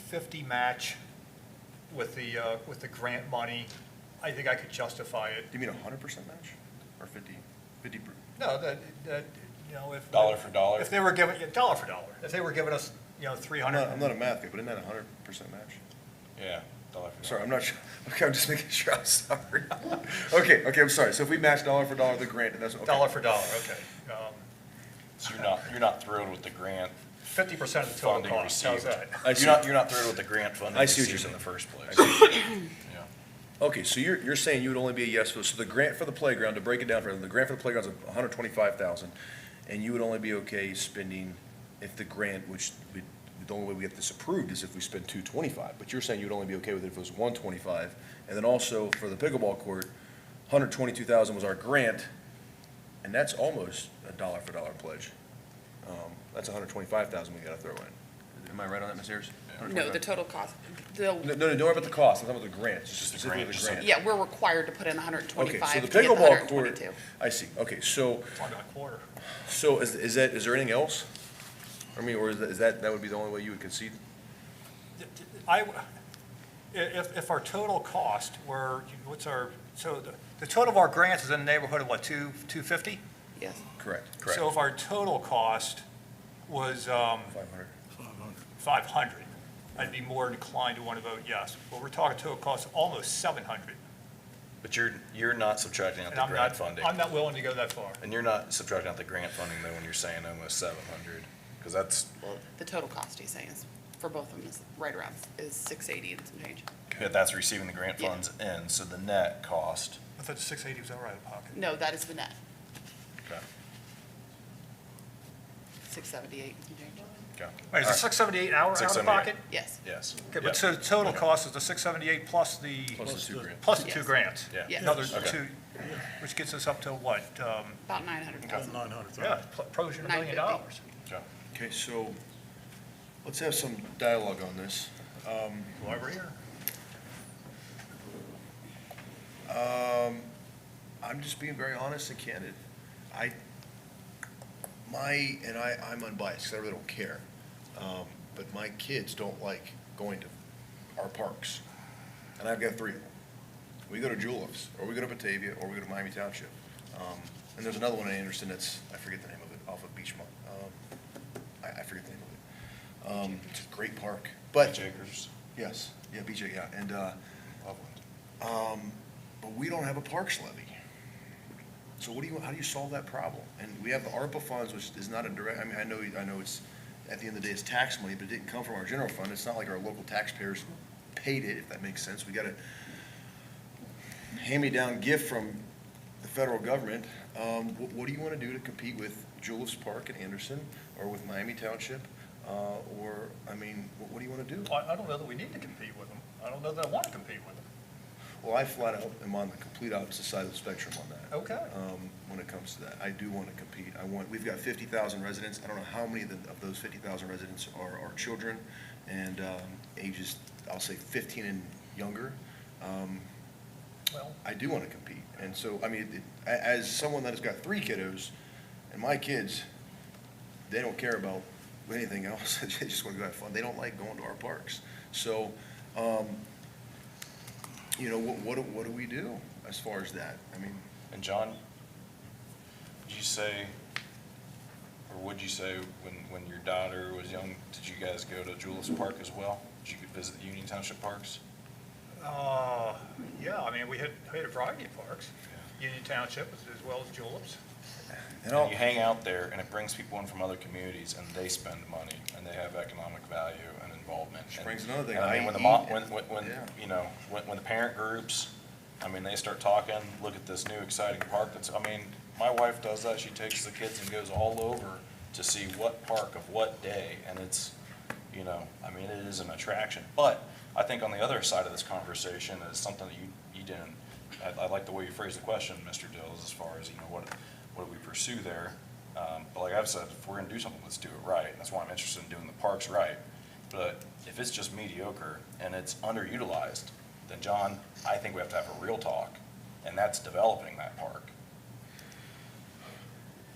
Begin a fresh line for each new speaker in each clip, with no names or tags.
fifty match with the, uh, with the grant money, I think I could justify it.
Do you mean a hundred percent match or fifty, fifty? per-
No, that, that, you know, if.
Dollar for dollar?
If they were giving, yeah, dollar for dollar, if they were giving us, you know, three
I'm
hundred.
not, I'm not a math guy, but isn't that a hundred percent match?
Yeah. dollar for
Sorry,
dollar.
I'm not sure. Okay, I'm just making sure. I'm sorry. Okay, okay, I'm sorry. So if we match dollar for dollar the grant, and that's, okay.
Dollar for dollar, okay. Um,
So you're not, you're not thrilled with the grant
Fifty percent of the total
funding
cost, how's
received?
that?
I see.
You're not, you're not thrilled with the grant funding
I see what you're
received in the
saying.
first place? Yeah.
Okay, so you're, you're saying you would only be a yes vote. So the grant for the playground, to break it down for them, the grant for the playground's a hundred twenty-five thousand, and you would only be okay spending if the grant, which we, the only way we get this approved is if we spend two twenty-five, but you're saying you would only be okay with it if it was one twenty-five. And then also for the pickleball court, hundred twenty-two thousand was our grant, and that's almost a dollar for dollar pledge. Um, that's hundred twenty-five thousand we gotta throw in. Am I right on that, Ms. Ayers?
No, the total cost, the,
No, no, no, don't worry about the cost. I'm talking about the grant, just
Just the
specifically
grant,
the
just the
grant.
yeah, we're required to put in hundred and
Okay, so
twenty-five
the
to get the hundred
pickleball
and
court.
twenty-two.
I see, okay, so,
Talking a quarter.
so is, is that, is there anything else? I mean, or is that- is that, that would be the only way you would concede?
I, w- i- if, if our total cost were, what's our, so the, the total of our grants is in the neighborhood of what, two, two fifty?
Yes,
Correct.
So if our total cost was, um,
Five hundred.
five hundred, I'd be more inclined to want to vote yes. But we're talking total cost of almost seven hundred.
But you're, you're not subtracting out
And
the
I'm
grant
not,
funding.
I'm not willing to go that far.
And you're not subtracting out the grant funding though when you're saying almost seven hundred? Because that's,
well, the total cost he's saying is, for both of them is right around, is six eighty and some change.
but that's receiving the grant
Yeah.
funds in, so the net cost.
I thought six eighty was all right in pocket.
No, that is the net,
Okay.
six seventy-eight and some change.
Wait,
Okay.
is it
All right.
six seventy-eight hour out of
678.
pocket?
Yes,
Yes.
Okay,
Yeah.
but so the total cost is the six seventy-eight plus the.
Plus the two grand.
Plus the two
Yes.
grants.
Yeah.
Yeah.
Another
Okay.
two, which gets us up to what, um,
about nine hundred thousand.
Nine hundred thousand.
yeah, pl- approaching a million dollars.
950.
Okay.
Okay, so, let's have some dialogue on this. Um,
Why we're here.
um, I'm just being very honest and candid. I, my, and I, I'm unbiased, 'cause I really don't care. Um, But my kids don't like going to our parks. And I've got three of them. We go to Juleps, or we go to Batavia, or we go to Miami Township. Um, And there's another one in Anderson that's, I forget the name of it, off of Beachmont. Um, I, I forget the name of it. Um, It's a great park, but.
Beach acres.
Yes, yeah, BJ, yeah, and, uh,
Loveland.
um, but we don't have a parks levy. So what do you, how do you solve that problem? And we have the ARPA funds, which is not a direct, I mean, I know, I know it's, at the end of the day, it's tax money, but it didn't come from our general fund. It's not like our local taxpayers paid it, if that makes sense. We got a hand-me-down gift from the federal government. Um, what, what do you want to do to compete with Julius Park and Anderson, or with Miami Township? Uh, or, I mean, what, what do you want to do?
I, I don't know that we need to compete with them. I don't know that I want to compete with them.
Well, I flat out am on the complete opposite side of the spectrum on that.
Okay.
Um, when it comes to that, I do want to compete. I want, we've got fifty thousand residents. I don't know how many of the- of those fifty thousand residents are, are children and, um, ages, I'll say fifteen and younger. Um,
Well,
I do want to compete. And so, I mean, it- a- as someone that has got three kiddos, and my kids, they don't care about anything else. They just want to go have fun. They don't like going to our parks. So, um, you know, what, what, do- what do we do as far as that? I mean,
And John, did you say, or would you say, when, when your daughter was young, did you guys go to Julius Park as well? Did you visit the Union Township Parks?
uh, yeah, I mean, we hit, hit a variety of parks. Union Township as as well as Juleps.
and
And
I'll,
you hang out there, and it brings people in from other communities, and they spend money, and they have economic value and involvement.
Which
And-
brings another thing,
and I
I
mean, when the
eat
mom,
and-
when, when, when,
yeah.
you know, when, when the parent groups, I mean, they start talking, look at this new exciting park that's, I mean, my wife does that, she takes the kids and goes all over to see what park of what day, and it's, you know, I mean, it is an attraction. But I think on the other side of this conversation is something that you, you didn't, I, I like the way you phrased the question, Mr. Dills, as far as, you know, what, what do we pursue there? Um, but like I've said, if we're gonna do something, let's do it right, and that's why I'm interested in doing the parks right. But if it's just mediocre and it's underutilized, then John, I think we have to have a real talk, and that's developing that park.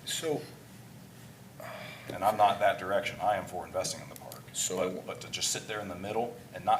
so,
And I'm not that direction, I am for investing in the park.
So I
But, but to just sit there in the middle and not